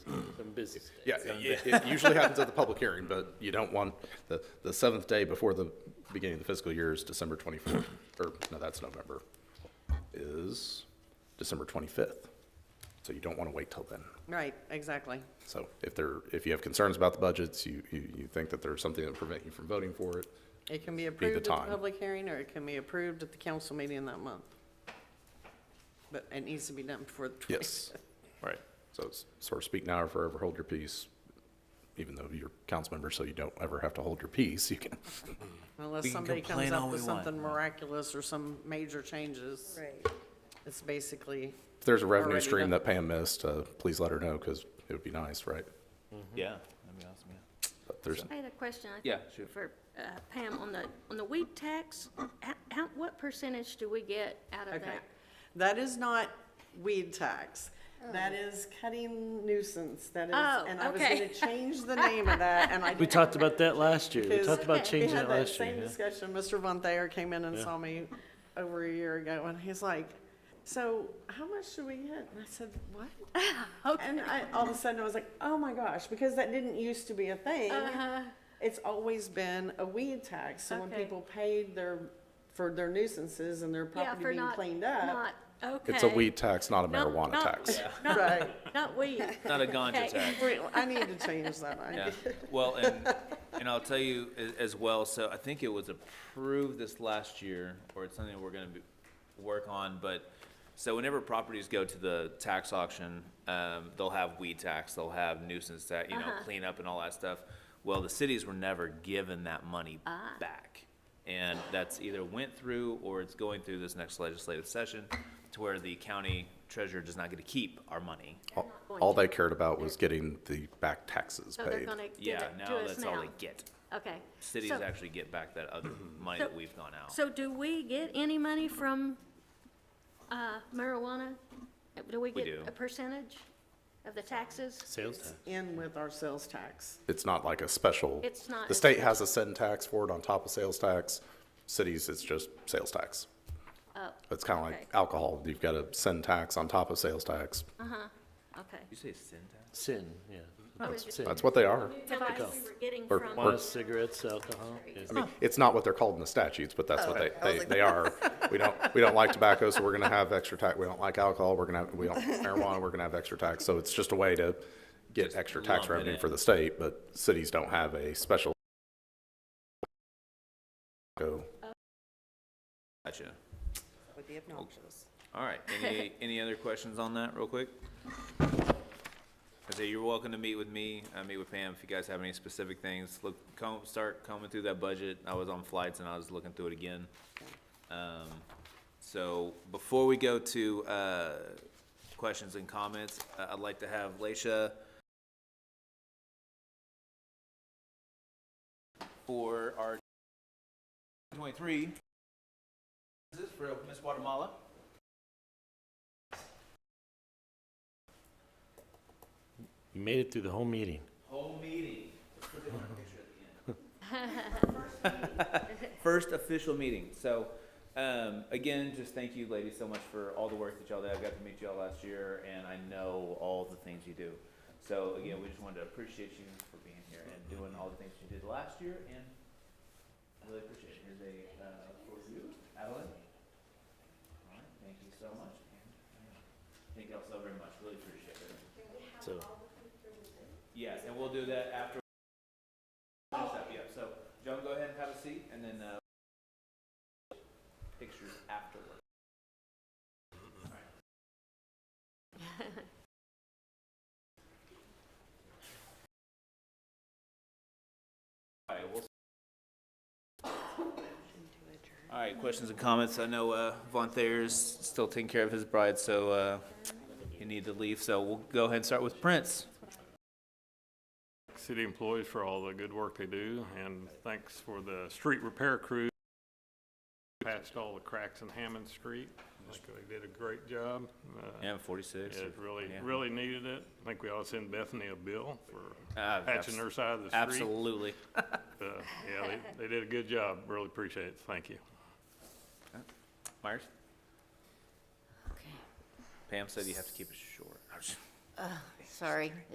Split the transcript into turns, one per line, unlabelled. business day.
Yeah, it, it usually happens at the public hearing, but you don't want, the, the seventh day before the beginning of the fiscal year is December twenty-fourth, or, no, that's November, is December twenty-fifth. So you don't want to wait till then.
Right, exactly.
So if there, if you have concerns about the budgets, you, you, you think that there's something that prevent you from voting for it,
It can be
the
approved at the
time.
public hearing, or it can be approved at the council meeting that month. But it needs to be done before the 20th.
yes. Right. So it's sort of speak now or forever hold your peace, even though you're council member, so you don't ever have to hold your peace, you can.
Unless
We can
somebody comes
complain
up
all
with
we want.
something miraculous or some major changes.
Right.
It's basically,
If there's a revenue
Already
stream
done.
that Pam missed, uh, please let her know, because it would be nice, right?
Yeah, that'd be awesome, yeah.
But there's,
I had a question. I think,
Yeah, sure.
For uh, Pam, on the, on the weed tax, h- how, what percentage do we get out of
okay.
that?
That is not weed tax. That is cutting nuisance. That is,
Oh,
and I was
okay.
gonna change the name of that, and I
We talked about that last year. We
Because-
talked about
Okay.
changing
We
it
had that
last
same
year. yeah.
discussion, Mr. Von Thayer came in and saw me over a year ago, and he's like, so how much do we get? And I said, what? And I, all of a sudden, I was like, oh my gosh, because that didn't used to be a thing.
Uh,
It's always been a weed tax, so when
Uh-huh. Okay.
people paid their, for their nuisances and their
Yeah,
property
for
being
not,
cleaned up.
not, okay.
it's a weed tax, not a
Not-
marijuana
not-
tax.
Not,
Right,
not weed.
Not a ganja
Okay.
tax.
Wait, I need to change that. I-
Yeah, well, and, and I'll tell you a- as well, so I think it was approved this last year, or it's something we're gonna be, work on, but, so whenever properties go to the tax auction, um, they'll have weed tax, they'll have nuisance tax, you
Uh-huh.
know, cleanup and all that stuff. Well, the cities were never given that money
Ah.
back. And that's either went through or it's going through this next legislative session to where the county treasurer does not get to keep our money.
All-
not going
All
to.
they cared about was getting the back taxes
So they're
paid.
gonna give
Yeah,
it to
now
us
that's all
now.
they get.
Okay.
cities
So-
actually get back that other money
So-
that we've gone out.
So do we get any money from uh, marijuana? Uh, Do we
We
get
do.
a percentage of the taxes?
Sales tax.
In with our sales tax.
It's not like a special.
It's not
The
a
state has a sin tax for it on top of sales tax. Cities, it's just sales tax.
Oh,
It's kind of
Okay. Uh-huh.
like alcohol. You've got a sin tax on top of sales tax.
okay.
you say syntax?
Sin, yeah.
was just-
sin.
That's what they are.
Device we were getting
Or-
from.
Wine, cigarettes, alcohol. yeah.
I mean, it's not what they're called in the statutes, but that's what they, they, they are. We don't, we don't like tobacco, so we're gonna have extra tax. We don't like alcohol, we're gonna have, we don't, marijuana, we're gonna have extra tax. So it's just a way to get extra tax
lump it
revenue
in.
for the state, but cities don't have a special. Go.
Gotcha. Oh.
would be obnoxious.
All right, any, any other questions on that, real quick? I say, you're welcome to meet with me, I meet with Pam, if you guys have any specific things, look, comb, start combing through that budget, I was on flights and I was looking through it again. Um, so, before we go to, uh, questions and comments, I- I'd like to have Leisha for our twenty-three, this is for Miss Guatemala.
You made it through the whole meeting.
Whole meeting. First official meeting. So, um, again, just thank you ladies so much for all the work that y'all did. I got to meet y'all last year and I know all the things you do. So again, we just wanted to appreciate you for being here and doing all the things you did last year and really appreciate it. Here's a, uh, for you, Adeline. All right, thank you so much. and, uh, Thank y'all so very much. Really appreciate it.
So
Yes, and we'll do that after. Yeah, so, Joan, go ahead and have a seat, and then, uh, pictures afterward. All right, we'll- All right, questions and comments? I know, uh, Von Thayer's still taking care of his bride, so, uh, he need to leave, so we'll go ahead and start with Prince.
city employees for all the good work they do, and thanks for the street repair crew. Patched all the cracks in Hammond Street. I think they did a great job. Uh,
Yeah, forty-six.
It really,
yeah.
really needed it. I think we ought to send Bethany a bill for
Ah,
patching
abs-
her side of the street.
Absolutely.
Uh, Yeah, they, they did a good job. Really appreciate it. Thank you.
Myers? Pam said you have to keep it short.
Sorry.